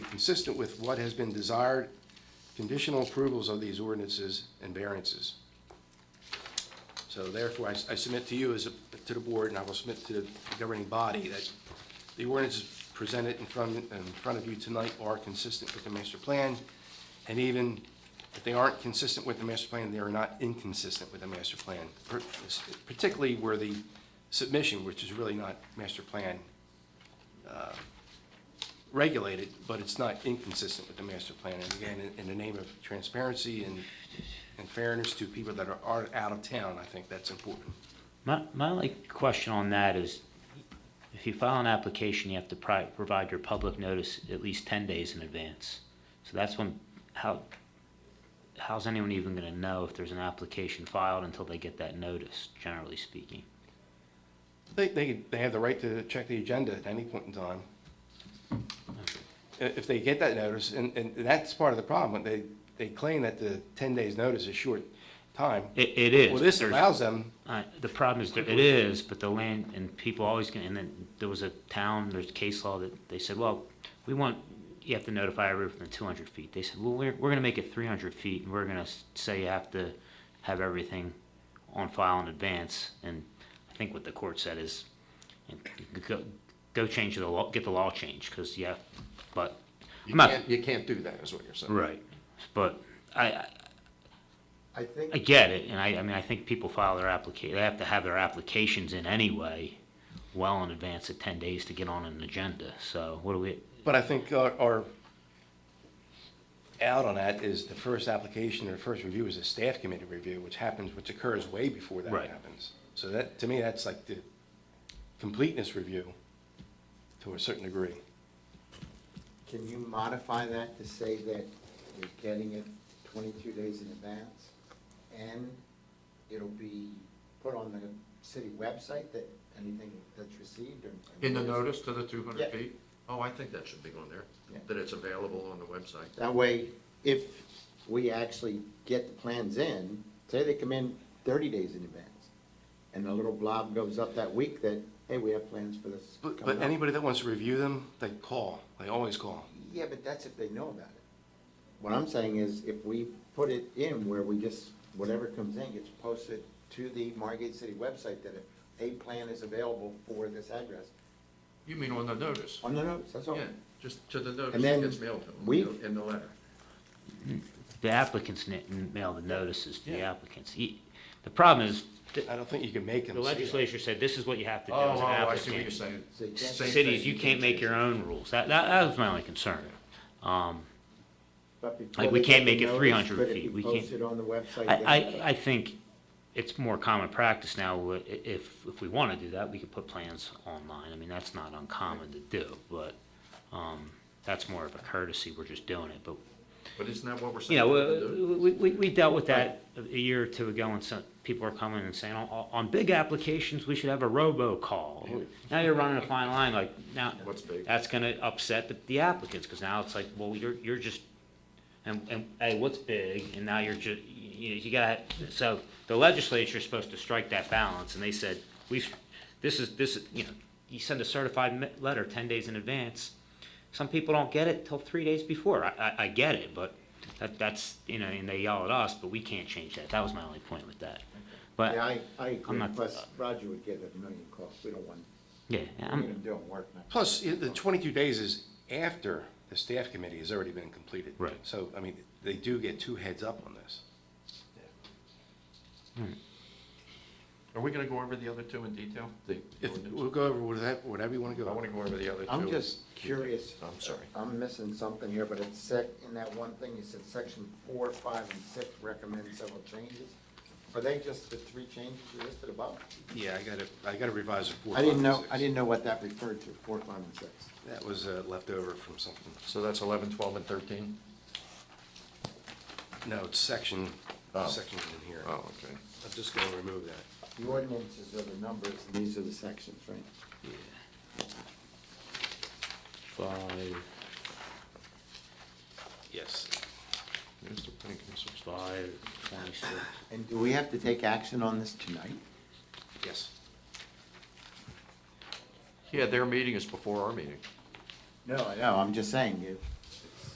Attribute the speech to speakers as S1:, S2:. S1: consistent with what has been desired, conditional approvals of these ordinances and variances. So therefore, I I submit to you as, a- to the board, and I will submit to the governing body, that the ordinances presented in front, in front of you tonight are consistent with the master plan, and even if they aren't consistent with the master plan, they are not inconsistent with the master plan, per- particularly where the submission, which is really not master plan uh, regulated, but it's not inconsistent with the master plan. And again, in- in the name of transparency and and fairness to people that are, are out of town, I think that's important.
S2: My, my only question on that is, if you file an application, you have to pri- provide your public notice at least ten days in advance. So that's when, how, how's anyone even gonna know if there's an application filed until they get that notice, generally speaking?
S1: They, they, they have the right to check the agenda at any point in time. I- If they get that notice, and, and that's part of the problem, they, they claim that the ten days notice is short time.
S2: It, it is.
S1: Well,
S2: but
S1: this
S2: there's-
S1: allows them,
S2: Uh, the problem is, that it is, but the land, and people always can, and then there was a town, there's case law that they said, well, we want, you have to notify everyone within two hundred feet. They said, well, we're, we're gonna make it three hundred feet, and we're gonna s- say you have to have everything on file in advance, and I think what the court said is, and go, go change the law, get the law changed, cause you have, but.
S3: You
S2: I'm not-
S3: can't, you can't do that, is what you're saying.
S2: Right, but I, I,
S3: I think.
S2: I get it, and I, I mean, I think people file their applica, they have to have their applications in anyway, well in advance of ten days to get on an agenda, so what do we,
S1: but I think our, our out on that is the first application or first review is a staff committee review, which happens, which occurs way before that
S2: Right.
S1: happens. So that, to me, that's like the completeness review to a certain degree.
S4: Can you modify that to say that you're getting it twenty-two days in advance? And it'll be put on the city website that anything that's received and.
S3: In the notice to the two hundred
S4: Yeah.
S3: feet? Oh, I think that should be on there,
S4: Yeah.
S3: that it's available on the website.
S4: That way, if we actually get the plans in, say they come in thirty days in advance, and a little blob goes up that week that, hey, we have plans for this
S1: But,
S4: coming
S1: but
S4: up.
S1: anybody that wants to review them, they call, they always call.
S4: Yeah, but that's if they know about it. What I'm saying is, if we put it in where we just, whatever comes in gets posted to the Margate City website, that if a plan is available for this address,
S3: You mean on the notice?
S4: on the notes, that's all.
S3: Yeah, just to the notice
S4: Oh. And
S3: that
S4: then
S3: gets mailed to them,
S4: we-
S3: you know, in the letter.
S2: the applicants na- mail the notices to the applicants. E- The problem is, the
S1: I don't think you can make them.
S2: the
S1: say that.
S2: legislature said this is what you have to
S3: Oh,
S2: do as
S3: oh,
S2: an
S3: I see what you're
S2: applicant.
S3: saying.
S4: So you can't-
S3: Same
S2: Cities,
S3: thing,
S2: you can't make your own rules, that, that, that was my only concern. Um,
S4: But before
S2: Like, we
S4: they
S2: can't
S4: get the
S2: make it
S4: notice,
S2: 300
S4: could it
S2: feet.
S4: be
S2: We can't-
S4: Posted on the website.
S2: I,
S4: then?
S2: I, I think it's more common practice now, wh- i- if, if we wanna do that, we could put plans online, I mean, that's not uncommon to do, but, um, that's more of a courtesy, we're just doing it, but,
S3: But isn't that what we're
S2: you
S3: saying?
S2: know,
S3: we have to do?
S2: uh, we, we, we dealt with that a a year or two ago, and some, people are coming and saying, on, on big applications, we should have a robocall. Now you're running a fine line, like, now,
S3: What's big?
S2: that's gonna upset the- the applicants, cause now it's like, well, you're, you're just and, and, hey, what's big, and now you're ju, you, you got, so the legislature's supposed to strike that balance, and they said, we've, this is, this, is you know, you send a certified me- letter ten days in advance, some people don't get it till three days before, I, I, I get it, but that, that's, you know, and they yell at us, but we can't change that, that was my only point with that.
S4: Yeah,
S2: But,
S4: I, I agree,
S2: not-
S4: plus Roger would get a million calls, we don't want,
S2: yeah,
S4: we need
S2: I'm,
S4: him doing work. not-
S1: Plus, i- the twenty-two days is after the staff committee has already been completed.
S2: Right.
S1: So, I mean, they do get two heads up on this.
S3: Are we gonna go over the other two in detail? The
S1: If,
S3: ordinance?
S1: we'll go over whatever, whatever you want to
S2: uh,
S3: I
S1: go.
S3: wanna go over the other two.
S4: I'm just curious.
S3: I'm sorry.
S4: I'm missing something here, but it's sec, in that one thing, you said section four, five, and six recommend several changes. Are they just the three changes you listed above?
S1: Yeah, I gotta, I gotta revise it. four,
S4: I didn't
S1: five,
S4: know,
S1: and
S4: I
S1: six.
S4: didn't know what that referred to, four, five, and six.
S1: That was uh, left over from something.
S3: So that's eleven, twelve, and thirteen?
S1: No, it's section,
S3: Oh.
S1: sections in here.
S3: Oh, okay.
S1: I'm just gonna remove that.
S4: The ordinances are the numbers, and these are the sections, right?
S2: five,
S1: Yes.
S3: Mr. Pincus,
S2: five, twenty-six,
S4: And do we have to take action on this tonight?
S1: Yes.
S3: Yeah, their meeting is before our meeting.
S4: No, I know, I'm just saying, if